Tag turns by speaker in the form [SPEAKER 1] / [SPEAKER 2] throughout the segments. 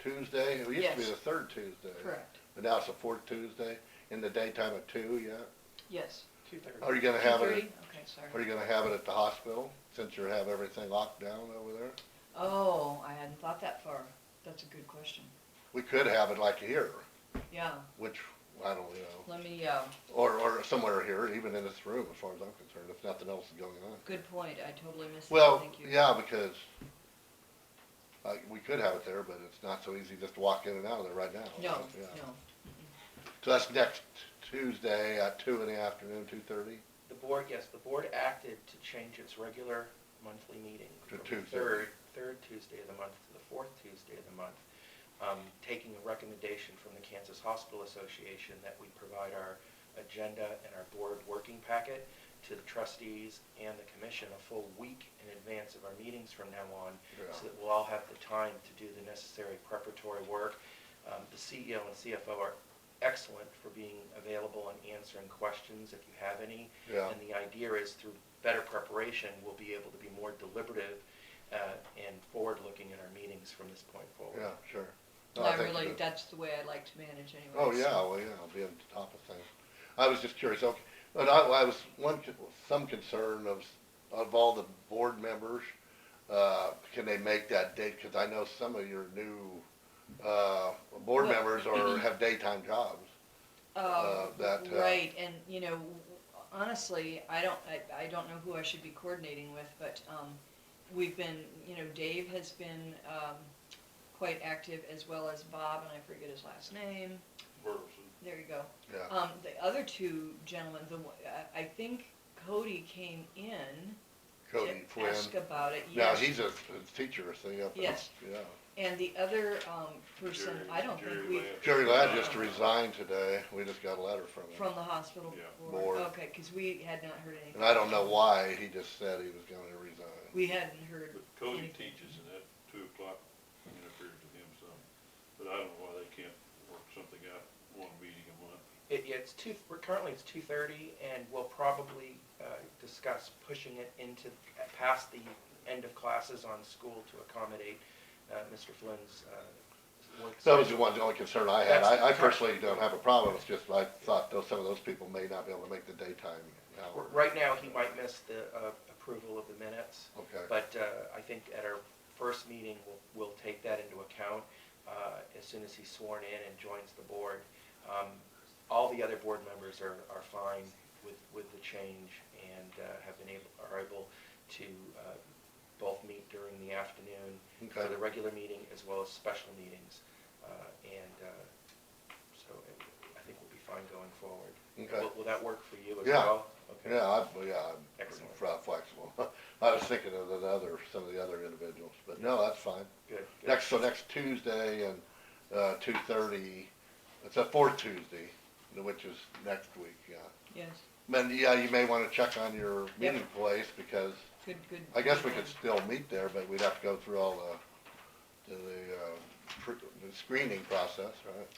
[SPEAKER 1] Tuesday? It used to be
[SPEAKER 2] Yes.
[SPEAKER 1] the third Tuesday.
[SPEAKER 2] Correct,
[SPEAKER 1] But now it's the fourth Tuesday, in the daytime at two, yeah?
[SPEAKER 2] yes.
[SPEAKER 3] Two thirty.
[SPEAKER 1] Are you gonna have
[SPEAKER 2] Two
[SPEAKER 1] it,
[SPEAKER 2] thirty? Okay,
[SPEAKER 1] are
[SPEAKER 2] sorry.
[SPEAKER 1] you gonna have it at the hospital, since you have everything locked down over there?
[SPEAKER 2] Oh, I hadn't thought that far. That's a good question.
[SPEAKER 1] We could have it like here,
[SPEAKER 2] Yeah,
[SPEAKER 1] which, I don't know,
[SPEAKER 2] let me, uh,
[SPEAKER 1] or, or somewhere here, even in this room, as far as I'm concerned, if nothing else is going on.
[SPEAKER 2] good point. I totally missed that.
[SPEAKER 1] Well,
[SPEAKER 2] Thank you.
[SPEAKER 1] yeah, because, uh, we could have it there, but it's not so easy just to walk in and out of there right now.
[SPEAKER 2] No,
[SPEAKER 1] Yeah.
[SPEAKER 2] no.
[SPEAKER 1] So that's next Tuesday at two in the afternoon, two thirty?
[SPEAKER 3] The board, yes, the board acted to change its regular monthly meeting.
[SPEAKER 1] To
[SPEAKER 3] from the
[SPEAKER 1] Tuesday.
[SPEAKER 3] Third, third Tuesday of the month to the fourth Tuesday of the month, um, taking a recommendation from the Kansas Hospital Association that we provide our agenda and our board working packet to the trustees and the commission a full week in advance of our meetings from now on, so that we'll all have the time to do the necessary preparatory work. Um, The CEO and CFO are excellent for being available and answering questions if you have any.
[SPEAKER 1] Yeah.
[SPEAKER 3] And the idea is through better preparation, we'll be able to be more deliberative uh, and forward-looking in our meetings from this point forward.
[SPEAKER 1] Yeah, sure. No,
[SPEAKER 2] I
[SPEAKER 1] think
[SPEAKER 2] really,
[SPEAKER 1] that-
[SPEAKER 2] that's the way I like to manage anyway.
[SPEAKER 1] Oh, yeah, well, yeah, I'll be on top of things. I was just curious, okay, but I, I was, one, con- some concern of, of all the board members, uh, can they make that date? Cause I know some of your new, uh, board
[SPEAKER 2] Well- mm-hmm.
[SPEAKER 1] members are, have daytime jobs.
[SPEAKER 2] Uh,
[SPEAKER 1] uh, that, uh,
[SPEAKER 2] right, and, you know, honestly, I don't, I, I don't know who I should be coordinating with, but, um, we've been, you know, Dave has been, um, quite active, as well as Bob, and I forget his last name, there you go.
[SPEAKER 1] Yeah,
[SPEAKER 2] Um, the other two gentlemen, the, one- I, I think Cody came in
[SPEAKER 1] Cody
[SPEAKER 2] to
[SPEAKER 1] Flynn.
[SPEAKER 2] ask about it,
[SPEAKER 1] Now,
[SPEAKER 2] yes.
[SPEAKER 1] he's a a teacher thing up in, yeah.
[SPEAKER 2] Yes. And the other, um, person,
[SPEAKER 4] Jerry-
[SPEAKER 2] I don't think
[SPEAKER 4] Jerry
[SPEAKER 2] we,
[SPEAKER 4] Lamb.
[SPEAKER 1] Jerry Ladd just resigned today. We just got a letter from him.
[SPEAKER 2] from the hospital
[SPEAKER 4] Yeah.
[SPEAKER 2] board,
[SPEAKER 1] Board.
[SPEAKER 2] okay, cause we had not heard anything.
[SPEAKER 1] And I don't know why, he just said he was gonna resign.
[SPEAKER 2] We hadn't heard
[SPEAKER 4] But Cody
[SPEAKER 2] anything.
[SPEAKER 4] teaches and that two o'clock interferes with him some, but I don't know why they can't work something out, one meeting a month.
[SPEAKER 3] It, yeah, it's two, we're currently it's two thirty, and we'll probably uh, discuss pushing it into, past the end of classes on school to accommodate uh, Mr. Flynn's uh, work.
[SPEAKER 1] That was the one, the only concern I had.
[SPEAKER 3] That's-
[SPEAKER 1] I, I personally don't have a problem. It's just I thought those, some of those people may not be able to make the daytime hour.
[SPEAKER 3] Right now, he might miss the uh, approval of the minutes,
[SPEAKER 1] Okay,
[SPEAKER 3] but uh, I think at our first meeting, we'll, we'll take that into account uh, as soon as he's sworn in and joins the board. Um, All the other board members are, are fine with, with the change and uh, have been able, are able to uh, both meet during the afternoon for
[SPEAKER 1] Okay.
[SPEAKER 3] the regular meeting as well as special meetings. Uh, And uh, so I think we'll be fine going forward.
[SPEAKER 1] Okay.
[SPEAKER 3] Will- Will that work for you as
[SPEAKER 1] Yeah.
[SPEAKER 3] well? Okay.
[SPEAKER 1] yeah, I, yeah, I'm pretty
[SPEAKER 3] Excellent.
[SPEAKER 1] fl- flexible. I was thinking of the other, some of the other individuals, but no, that's fine.
[SPEAKER 3] Good. good.
[SPEAKER 1] Next, so next Tuesday and, uh, two thirty, it's a fourth Tuesday, which is next week, yeah.
[SPEAKER 2] Yes,
[SPEAKER 1] Then, yeah, you may wanna check on your
[SPEAKER 2] Yep.
[SPEAKER 1] meeting place, because
[SPEAKER 2] good, good.
[SPEAKER 1] I guess we
[SPEAKER 2] good
[SPEAKER 1] could
[SPEAKER 2] point.
[SPEAKER 1] still meet there, but we'd have to go through all the, the, uh, pr- the screening process, right?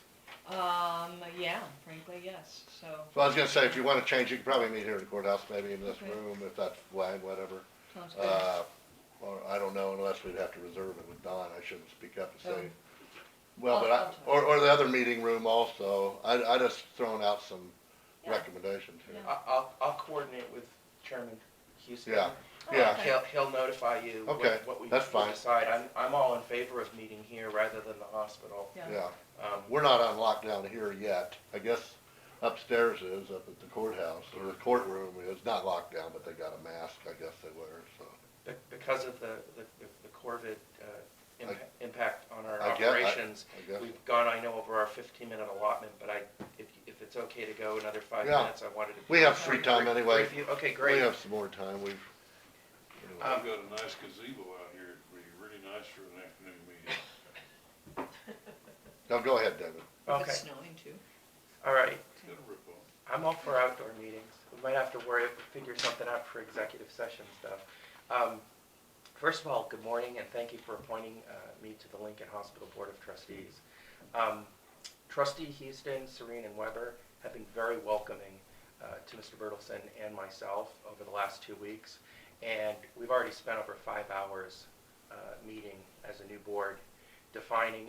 [SPEAKER 2] Um, yeah, frankly, yes, so,
[SPEAKER 1] So I was gonna say, if you wanna change, you could probably meet here in the courthouse, maybe in this
[SPEAKER 2] Okay.
[SPEAKER 1] room, if that's wide, whatever.
[SPEAKER 2] sounds good.
[SPEAKER 1] Uh, or, I don't know, unless we'd have to reserve it with Don, I shouldn't speak up and say.
[SPEAKER 2] Oh.
[SPEAKER 1] Well, but
[SPEAKER 2] I'll-
[SPEAKER 1] I,
[SPEAKER 2] I'll tell
[SPEAKER 1] or, or the other meeting room also, I, I just thrown out some
[SPEAKER 2] Yeah.
[SPEAKER 1] recommendations here.
[SPEAKER 2] Yeah.
[SPEAKER 3] I- I'll, I'll coordinate with Chairman Houston.
[SPEAKER 1] Yeah,
[SPEAKER 2] Oh,
[SPEAKER 1] yeah.
[SPEAKER 2] okay.
[SPEAKER 3] He'll, he'll notify you what
[SPEAKER 1] Okay,
[SPEAKER 3] what we
[SPEAKER 1] that's
[SPEAKER 3] we
[SPEAKER 1] fine.
[SPEAKER 3] decide. I'm, I'm all in favor of meeting here rather than the hospital.
[SPEAKER 2] Yeah.
[SPEAKER 1] yeah.
[SPEAKER 3] Um,
[SPEAKER 1] We're not on lockdown here yet. I guess upstairs is, up at the courthouse, or the courtroom is, not locked down, but they got a mask, I guess they wear, so.
[SPEAKER 3] be- Because of the, the the COVID uh,
[SPEAKER 1] I-
[SPEAKER 3] impa- impact on our
[SPEAKER 1] I guess- I-
[SPEAKER 3] operations,
[SPEAKER 1] I guess-
[SPEAKER 3] we've gone, I know, over our 15-minute allotment, but I, if, if it's okay to go another five
[SPEAKER 1] Yeah.
[SPEAKER 3] minutes, I wanted to.
[SPEAKER 1] We have free time anyway.
[SPEAKER 3] Brief you. Okay,
[SPEAKER 1] We
[SPEAKER 3] great.
[SPEAKER 1] have some more time, we've. anyway.
[SPEAKER 3] Um,
[SPEAKER 4] I've got a nice gazebo out here, it'd be really nice for an afternoon meeting.
[SPEAKER 1] No, go ahead, David.
[SPEAKER 2] If
[SPEAKER 3] Okay,
[SPEAKER 2] it's snowing too.
[SPEAKER 3] all right.
[SPEAKER 4] It's got a rip on.
[SPEAKER 3] I'm all for outdoor meetings. We might have to worry, figure something out for executive session stuff. Um, First of all, good morning and thank you for appointing uh, me to the Lincoln Hospital Board of Trustees. Um, Trustee Houston, Serene, and Weber have been very welcoming uh, to Mr. Bertelson and myself over the last two weeks. And we've already spent over five hours uh, meeting as a new board, defining